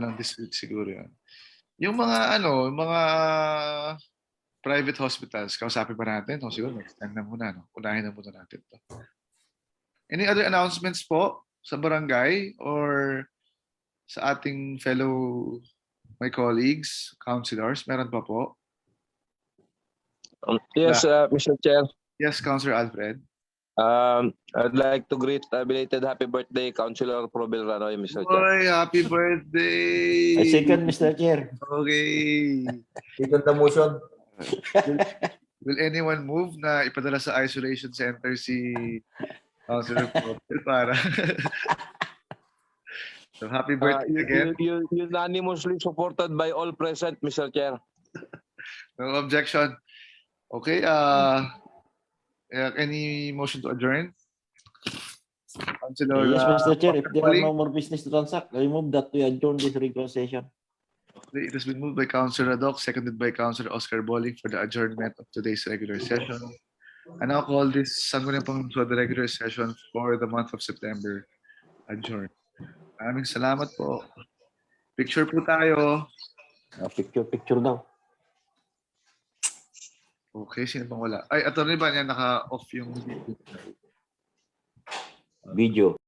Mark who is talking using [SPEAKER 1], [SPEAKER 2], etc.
[SPEAKER 1] lang this week siguro yun. Yung mga ano, yung mga private hospitals, kausapin pa natin. O siguro next time na muna. No? Unahin na muna natin to. Any other announcements po sa barangay or sa ating fellow my colleagues, councilors? Meron pa po?
[SPEAKER 2] Um, Yes, uh, Mr. Chair.
[SPEAKER 1] Yes, Councilor Alfred.
[SPEAKER 2] Um, I'd like to greet uh, belated happy birthday, Councilor Probel Ranoy, Mr. Chair.
[SPEAKER 1] Boy, happy birthday!
[SPEAKER 3] I Eh, second, Mr. Chair.
[SPEAKER 1] Okay.
[SPEAKER 4] Second the motion.
[SPEAKER 1] Will anyone move na ipadala sa isolation center si Councilor Popel para... so happy
[SPEAKER 2] Uh,
[SPEAKER 4] Ah,
[SPEAKER 1] birthday again.
[SPEAKER 2] u- u- u- Unanimously supported by all present, Mr. Chair.
[SPEAKER 1] No objection. Okay, uh, yeah, any motion to adjourn? Councilor,
[SPEAKER 3] Yes,
[SPEAKER 1] uh,
[SPEAKER 3] Mr. Chair, if there are
[SPEAKER 1] Pauling?
[SPEAKER 3] no more business to transact, I move that we adjourn this regular session.
[SPEAKER 1] it has been moved by Councilor Doc, seconded by Councilor Oscar Bowling for the adjournment of today's regular session. I now call this Sangguniang Pangunawa, the regular session for the month of September adjourned. Maraming salamat po. Picture po tayo.
[SPEAKER 3] Ah, Picture, picture daw.
[SPEAKER 1] Okay, sino pang wala? Ay, attorney ba niya naka-off yung
[SPEAKER 3] Video.